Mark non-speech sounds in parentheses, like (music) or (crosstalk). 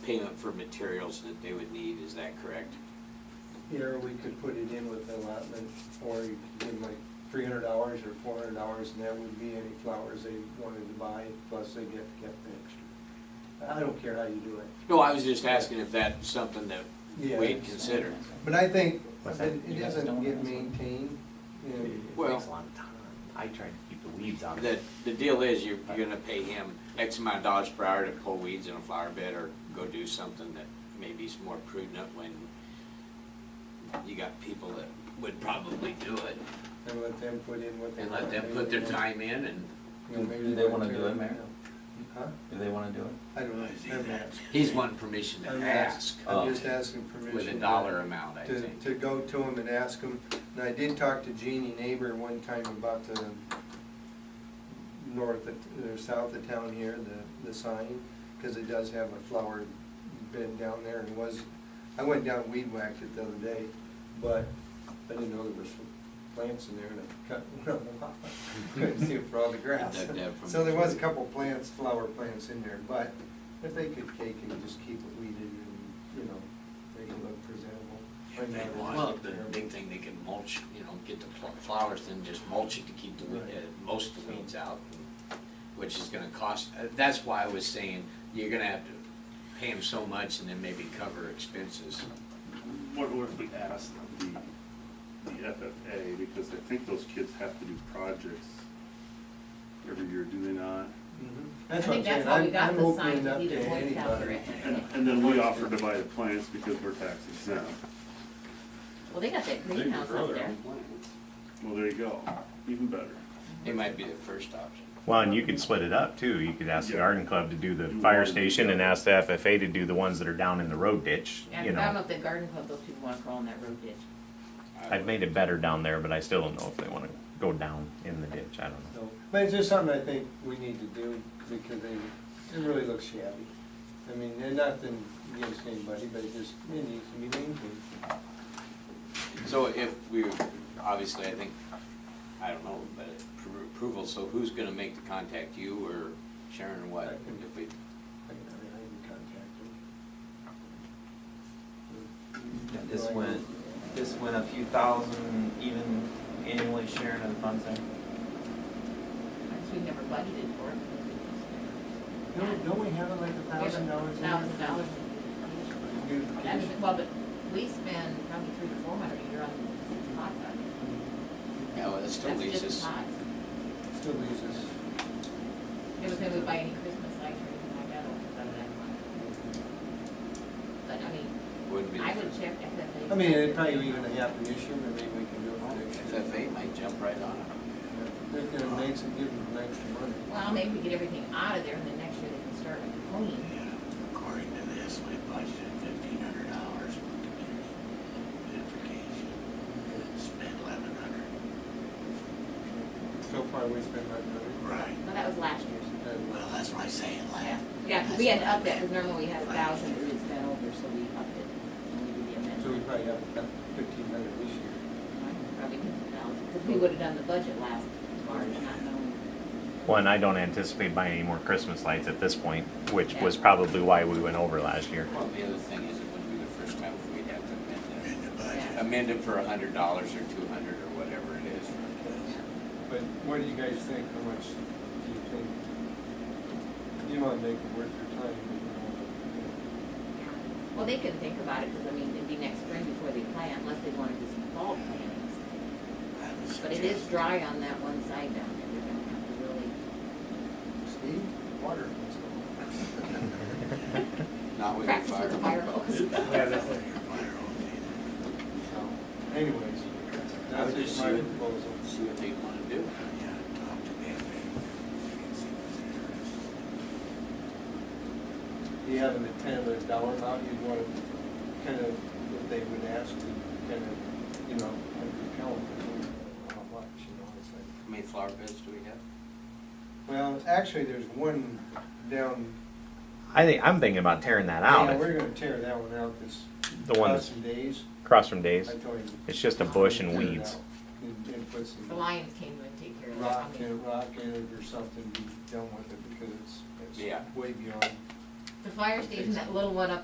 payment for materials that they would need, is that correct? Here, we could put it in with allotment, or you could give them like three hundred hours or four hundred hours, and that would be any flowers they wanted to buy, plus they get kept extra. I don't care how you do it, No, I was just asking if that's something that Yeah. we'd consider. but I think What's that that? it You guys doesn't don't get have one? maintained, and It Well- takes a long time. I try to keep the weeds out of The, it. the deal is you're, you're gonna pay him X amount of dollars per hour to pull weeds in a flower bed or go do something that maybe is more prudent when you got people that would probably do it and let them put in what they. and let want. them put their time in and You know, maybe Do they wanna tear do it, Mayor? Huh? Do they wanna do it? I don't know. I'm not- he's wanting permission to I'm not- ask uh, Oh. I'm just asking permission. with a to- dollar amount, I to, think. to go to them and ask them. And I did talk to Jeannie Neighbor one time about the north, of- or south of town here, the, the sign, because it does have a flower bed down there and was, I went down and weed whacked it the other day, but I didn't know there was plants in there and I cut one of them off. (laughs) Couldn't see it for all the grass. Dug that from- So there was a couple plants, flower plants in there, but if they could take and just keep it weeded and, you know, make it look presentable. If they want, the big thing, they can mulch, you know, get the pl- flowers, then just mulch it to keep the, weed- Right. uh, most of the weeds out, which is gonna cost, uh, that's why I was saying, you're gonna have to pay them so much and then maybe cover expenses. What what if we asked the, the FFA, because I think those kids have to do projects every year, do they Mhm. not? I That's what I'm think that's saying, how we I'm, got I'm the sign opening to up be to the voice out anybody. And, there. and then we offer to buy the plants because we're tax exempt. Well, they got that They can greenhouse grow out their there. own plants. Well, there you go, even better. It might be the first option. Well, and you could split it up too. You could ask the Yeah. garden club to do the You fire want to do station and that. ask the FFA to do the ones that are down in the road ditch, And you if I'm know. up at Garden Club, those people wanna grow on that road ditch. I've made it better down there, but I still don't know if they wanna go down in the ditch. I don't know. So, But it's just something I think we need to do because they, it really looks shabby. I mean, they're nothing against anybody, but it just, it needs to be maintained. So if we, obviously, I think, I don't know, but appro- approval, so who's gonna make the contact, you or Sharon or what? If we, I can, I can contact Yeah, them. This went, this went a few thousand even annually sharing of the funds there. Because we never budgeted for it. Don't, don't we have it like a thousand dollars? in there? Thousand dollars. You- That is, well, but we spend probably three to four hundred a year on hot dogs. yeah, well, that still That's leaves just us, hot. Still leaves us. It was maybe buy any Christmas lights or anything like that, or something like that. But I mean, wouldn't be. the I would first. check if that. I mean, it'd probably even happen this year, but maybe we can do it for next year. FFA might jump right on it. They're gonna make some, give them extra money. Well, maybe we get everything out of there and then next year they can start cleaning. According to this, we budgeted fifteen hundred dollars for community beautification, spent eleven hundred. So far, we spent like a Right. Well, that was last year's. Well, that's why I say it Yeah, laugh. Yeah, 'cause we had to up that, because normally we had a thousand, but it's been over, so we upped it. when we So did the amendment. we probably have about fifteen hundred this year. Probably a thousand, because we would've done the budget last March, not knowing. Well, and I don't anticipate buying any more Christmas lights at this point, which was probably why we went over last year. (laughs) Well, the other thing is, it wouldn't be the first time we'd have to amend In the that. budget. Amend it for a hundred dollars or two hundred or whatever it is. But what do you guys think, how much do you think? You wanna make it worth your time, you Well, they couldn't think about it, because I mean, it'd be next spring before they plant, unless they wanted to do some fall plantings. I would But it is suggest- dry on that one side down there, they're gonna have to really, know. Steve, water. Not with a practice fire. with the fire (laughs) hose. Yeah, that's it. Your fire hose Anyways, I that's would just just my see what, proposal. see what they wanna do. either. Yeah, talk to me. Do you have an intended dollar amount you'd wanna kind of, if they would ask you, kind of, you know, like, tell them how much, you know, it's like. How many flower beds do we have? Well, actually, there's one down. I think, I'm thinking about tearing that Yeah, we're out, gonna tear that one out this. the one that's Some days. across from I Dave's. told him. It's just a bush and tear it weeds. out And and put The some lions came and take care of that. rock I in, mean, rock in it or something, be done with it because it's, Yeah. it's way beyond the fire station, that little one up